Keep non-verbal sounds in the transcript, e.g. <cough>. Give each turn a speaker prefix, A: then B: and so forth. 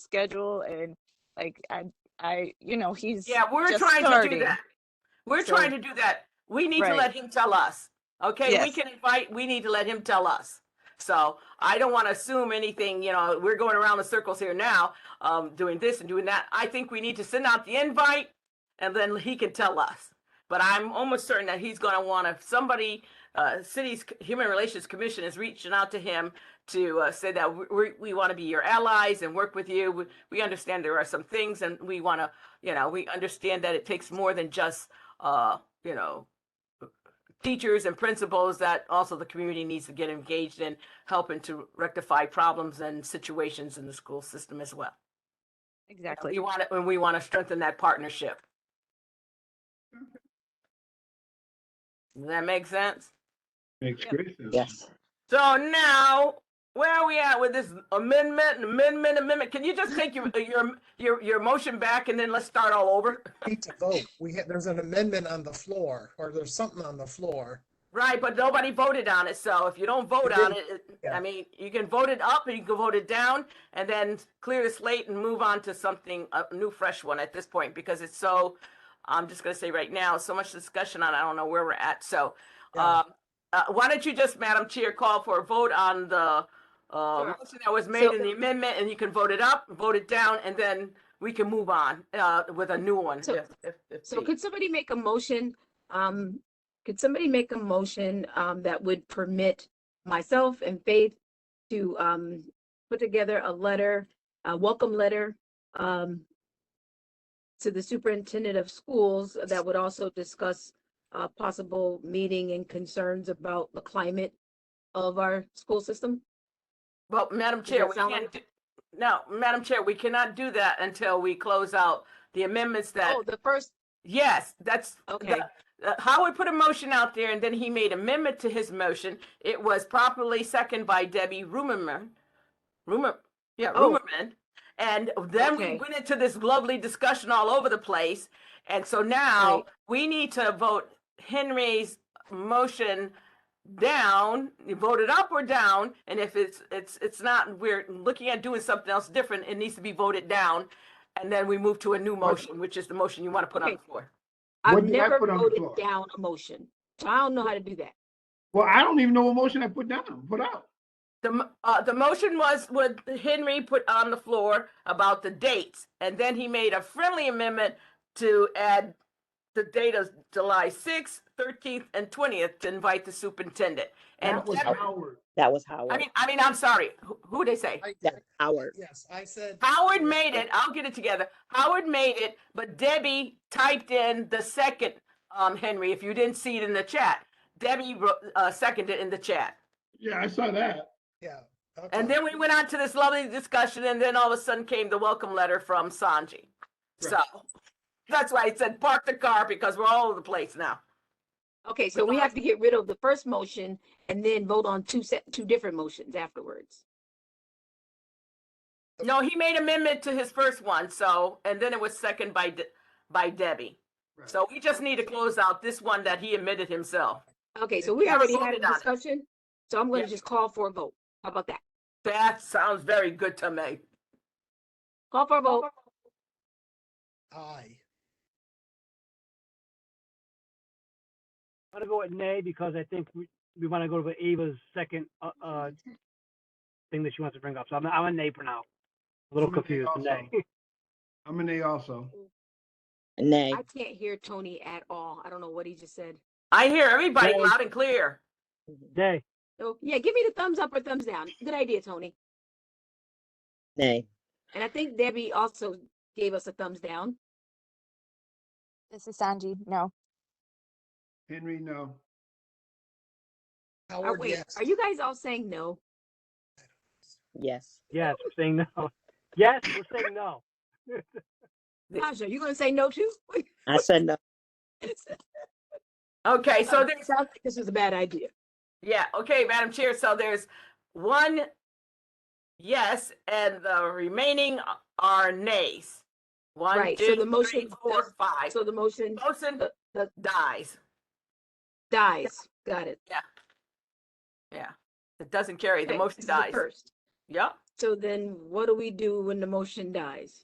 A: schedule and like I I you know he's
B: Yeah, we're
A: just
B: trying to do
A: starting.
B: that. We're
A: So-
B: trying to do that. We need to
A: Right.
B: let him tell us. Okay, we
A: Yes.
B: can invite, we need to let him tell us. So I don't want to assume anything, you know, we're going around the circles here now, um, doing this and doing that. I think we need to send out the invite and then he can tell us. But I'm almost certain that he's going to want to, somebody, uh, city's c- human relations commission is reaching out to him to uh, say that we- we, we want to be your allies and work with you. We, we understand there are some things and we want to you know, we understand that it takes more than just, uh, you know, teachers and principals that also the community needs to get engaged in helping to rectify problems and situations in the school system as well.
A: Exactly.
B: We want to, and we want to strengthen that partnership. Does that make sense?
C: Makes
A: Yep.
C: great sense.
D: Yes.
B: So now, where are we at with this amendment, amendment, amendment? Can you just take your, your, your, your motion back and then let's start all over?
E: need to vote. We had, there's an amendment on the floor, or there's something on the floor.
B: Right, but nobody voted on it, so if you don't vote on it, it- I
E: Yeah.
B: mean, you can vote it up and you can vote it down and then clear the slate and move on to something, a new fresh one at this point, because it's so, I'm just gonna say right now, so much discussion on, I don't know where we're at, so.
E: Yeah.
B: Um, uh, why don't you just, Madam Chair, call for a vote on the, uh,
A: Sure.
B: motion that was made in the amendment and you can vote it up, vote it down, and then we can move on, uh, with a new one.
D: So-
B: if- if- if
D: So
B: need.
D: could somebody make a motion, um, could somebody make a motion, um, that would permit myself and Faith to, um, put together a letter, a welcome letter, um, to the superintendent of schools that would also discuss, uh, possible meeting and concerns about the climate of our school system?
B: Well, Madam Chair,
D: that
B: we
D: sound
B: can't, do- no, Madam Chair, we cannot do that until we close out the amendments that,
D: Oh, the first,
B: yes, that's. the-
D: Okay.
B: uh, Howard put a motion out there and then he made amendment to his motion. It was properly seconded by Debbie Rumerman. Rumer, yeah,
D: Oh.
B: Rumerman. And then we
D: Okay.
B: went into this lovely discussion all over the place. And so now
D: Right.
B: we need to vote Henry's motion down, you vote it up or down, and if it's, it's, it's not, we're looking at doing something else different, it needs to be voted down. And then we move to a new motion, which is the motion you want to put on the
D: Okay.
B: floor.
D: I've
C: What did I
D: never
C: put on the
D: voted
C: floor?
D: down a motion. So I don't know how to do that.
C: Well, I don't even know what motion I put down, put out.
B: The, m- uh, the motion was what Henry put on the floor about the dates, and then he made a friendly amendment to add the date of July sixth, thirteenth, and twentieth to invite the superintendent. And,
C: That was
B: Deb-
C: Howard.
F: That was
B: I
F: Howard.
B: mean, I mean, I'm sorry, who, who'd they say?
E: I-
F: That Howard.
E: Yes, I said,
B: Howard made it. I'll get it together. Howard made it, but Debbie typed in the second, um, Henry, if you didn't see it in the chat. Debbie, wrote- uh, seconded in the chat.
C: Yeah, I saw that.
E: yeah. okay.
B: And then we went on to this lovely discussion and then all of a sudden came the welcome letter from Sanji. So that's why I said park the car because we're all over the place now.
D: Okay, so we have to get rid of the first motion and then vote on two set, two different motions afterwards.
B: No, he made amendment to his first one, so, and then it was second by, De- by Debbie.
C: Right.
B: So we just need to close out this one that he admitted himself.
D: Okay, so we
B: Yeah,
D: already
B: vote
D: had a
B: it on it.
D: discussion, so I'm gonna
B: Yeah.
D: just call for a vote. How about that?
B: That sounds very good to me.
D: Call for a vote.
E: Aye.
G: I'm gonna go with nay because I think we, we wanna go to Ava's second, uh, uh, thing that she wants to bring up. So I'm, I'm a nay for now. A little
C: I'm a nay
G: confused,
C: also.
G: nay. <laughs>
C: I'm an A also.
F: Nay.
D: I can't hear Tony at all. I don't know what he just said.
B: I hear everybody
G: Nay.
B: loud and clear.
G: Nay,
D: So, yeah, give me the thumbs up or thumbs down. Good idea, Tony.
F: Nay.
D: And I think Debbie also gave us a thumbs down.
A: This is Sanji. No.
C: Henry, no.
D: Are,
B: Oh,
E: Howard,
D: Oh, wait,
E: yes.
D: are you guys all saying no?
F: Yes.
G: yes, we're saying no. Yes, we're saying no.
D: Tasha, you gonna say no too? <laughs>
F: I said no.
B: Okay, so
D: Um,
B: there's,
D: Sounds like this was a bad idea.
B: yeah, okay, Madam Chair, so there's one yes, and the remaining are nays. One,
D: Right, so the
B: two, three,
D: motion
B: four,
D: does-
B: five.
D: So the motion
B: Motion
D: the- the-
B: dies.
D: dies. Got it.
B: It doesn't carry, the
D: Okay,
B: motion
D: this is
B: dies.
D: First.
B: Yep,
D: So then what do we do when the motion dies?